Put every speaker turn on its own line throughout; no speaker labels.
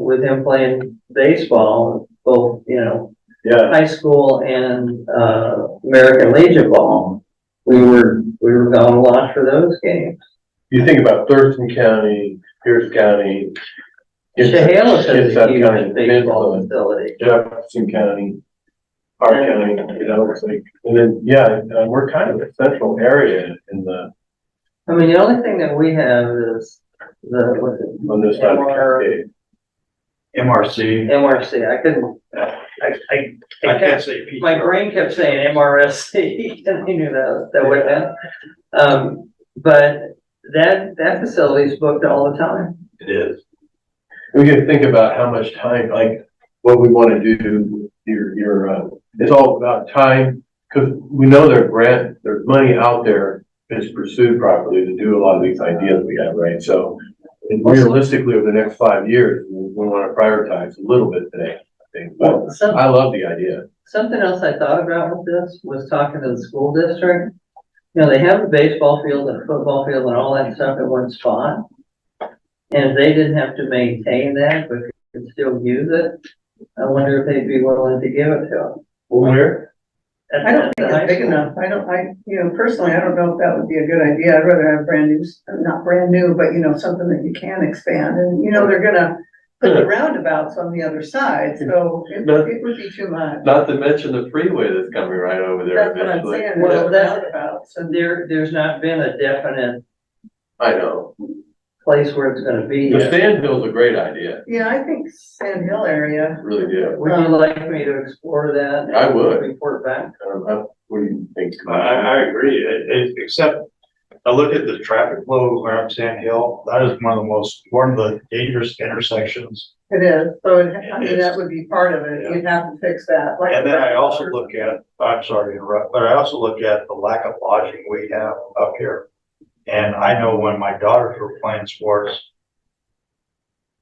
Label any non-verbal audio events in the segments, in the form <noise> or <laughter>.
with him playing baseball, both, you know,
Yeah,
high school and, uh, American Legion ball. We were, we were going to watch for those games.
you think about Thurston County, Pierce County.
Chehalis has a
Kitsap County,
huge baseball
Midland,
facility.
Jefferson County, our county, you know, it's like, and then, yeah, uh, we're kind of a central area in the,
I mean, the only thing that we have is the, what's it,
on this side of Cascade.
MRC.
MRC. I couldn't,
I, I, I
I
can't
kept,
say. P-
my brain kept saying MRSC <laughs> and I knew that, that would have. Um, but that, that facility's booked all the time.
It is.
We can think about how much time, like, what we wanna do, your, your, uh, it's all about time. Cause we know there's grant, there's money out there that's pursued properly to do a lot of these ideas we have, right? So realistically, over the next five years, we we wanna prioritize a little bit today, I think, but
Some-
I love the idea.
Something else I thought about with this was talking to the school district. You know, they have a baseball field and a football field and all that stuff in one spot. And if they didn't have to maintain that, but could still use it, I wonder if they'd be willing to give it to
Where?
them.
I don't think it's big enough. I don't, I, you know, personally, I don't know if that would be a good idea. I'd rather have brand new, s- not brand new, but you know, something that you can expand. And, you know, they're gonna put the roundabouts on the other side, so it, it would be too much.
Not to mention the freeway that's coming right over there
That's what I'm
eventually.
saying,
Well,
there's
that's-
roundabouts and.
There, there's not been a definite
I know.
place where it's gonna be.
The
yet.
sand hill's a great idea,
Yeah, I think Sand Hill area,
really do.
Would you like me to explore that? and
I would.
Report back?
Um, I- What do you think?
I, I agree, It- it- except I look at the traffic flow around Sand Hill, that is one of the most, one of the dangerous intersections.
it is, so it, I
It
mean,
is.
that would be part of it. You'd have to fix that. like-
And then I also look at, I'm sorry to interrupt, but I also look at the lack of lodging we have up here. And I know when my daughters were playing sports,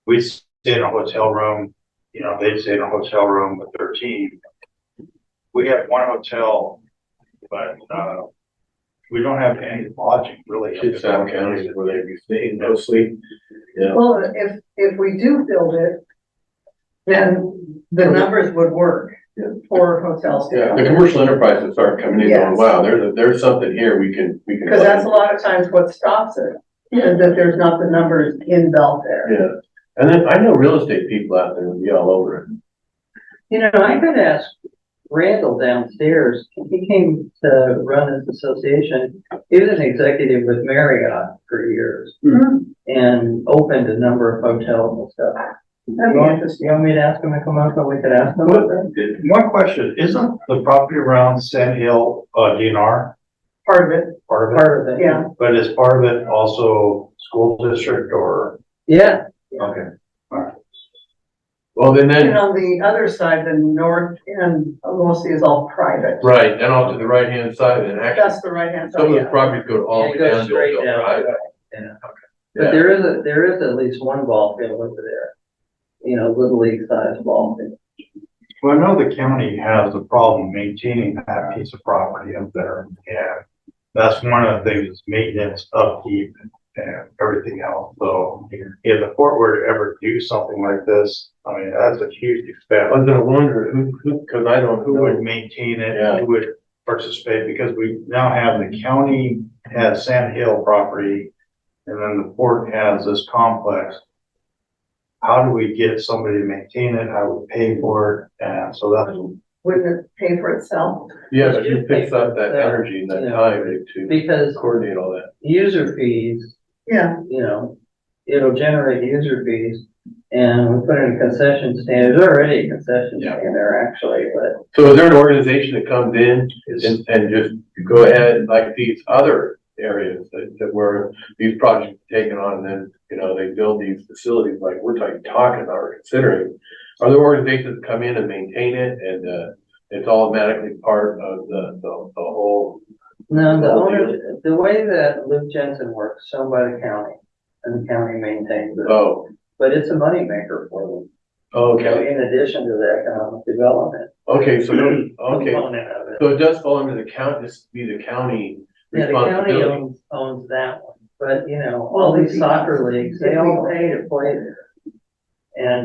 we stayed in a hotel room, you know, they stayed in a hotel room with their team. We had one hotel, but, uh, we don't have any lodging really. up in
Kitsap County is where they'd be staying mostly. Yeah.
Well, if, if we do build it, then the numbers would work
Yeah.
for hotels. to
Yeah,
come.
the commercial enterprises start coming in going,
Yes.
wow, there's, a- there's something here we can, we can.
Because that's a lot of times what stops it, is that there's not the numbers in Belfair.
Yeah, and then I know real estate people out there would be all over it.
You know, I could ask Randall downstairs, he came to run his association. He was an executive with Marriott for years
Hmm,
and opened a number of hotels and stuff.
That'd
You
be
want-
interesting.
You want me to ask him to come up, or we could ask him?
Well, One question, isn't the property around Sand Hill, uh, DNR
Part of it,
part of it?
Part of it.
yeah.
But is part of it also school district or?
Yeah,
Okay.
Well, then
And
then,
on the other side, the north end mostly is all private.
right, then off to the right-hand side, and actually,
That's the right hand
some
side,
of the
yeah.
properties go all the way
It goes
down to
straight
Oakdale
down.
Drive.
but
Yeah.
there is, a there is at least one ball field over there. You know, little league sized ball field.
Well, I know the county has a problem maintaining that piece of property up there. Yeah. That's one of the things, is maintenance, upkeep and everything else. So if the court were to ever do something like this, I mean, that's a huge
I
expense.
was gonna wonder who, who, cause I don't,
who
who
would
would,
maintain
Yeah.
it, who would participate, because we now have the county has Sand Hill property, and then the port has this complex. How do we get somebody to maintain it, how do we pay for it, and so that's,
Wouldn't it pay for itself?
yeah, but who
Just
picks up that
that-
energy and that
yeah.
time to
Because
coordinate all that?
user fees
Yeah,
you know, it'll generate user fees. And we put in a concession stand, there's already a concession
Yeah.
stand there actually, but
So is there an organization that comes in
is,
and, and just go ahead like these other areas that, that where these projects are taken on and then, you know, they build these facilities like we're talking, talking about or considering. Are there organizations that come in and maintain it and, uh, it's automatically part of the, the, the whole?
no, the
Well,
owner, the way that Luke Jensen works, so by the county. And the county maintains it,
Oh,
but it's a moneymaker for them, you know,
okay,
in addition to the economic development.
okay, so, no- okay.
Component of it.
So it does fall under the county, this be the county
Yeah, the county
responsibility.
owns, owns that one, but you know,
Well,
all
we-
these soccer leagues, they all pay to play there. And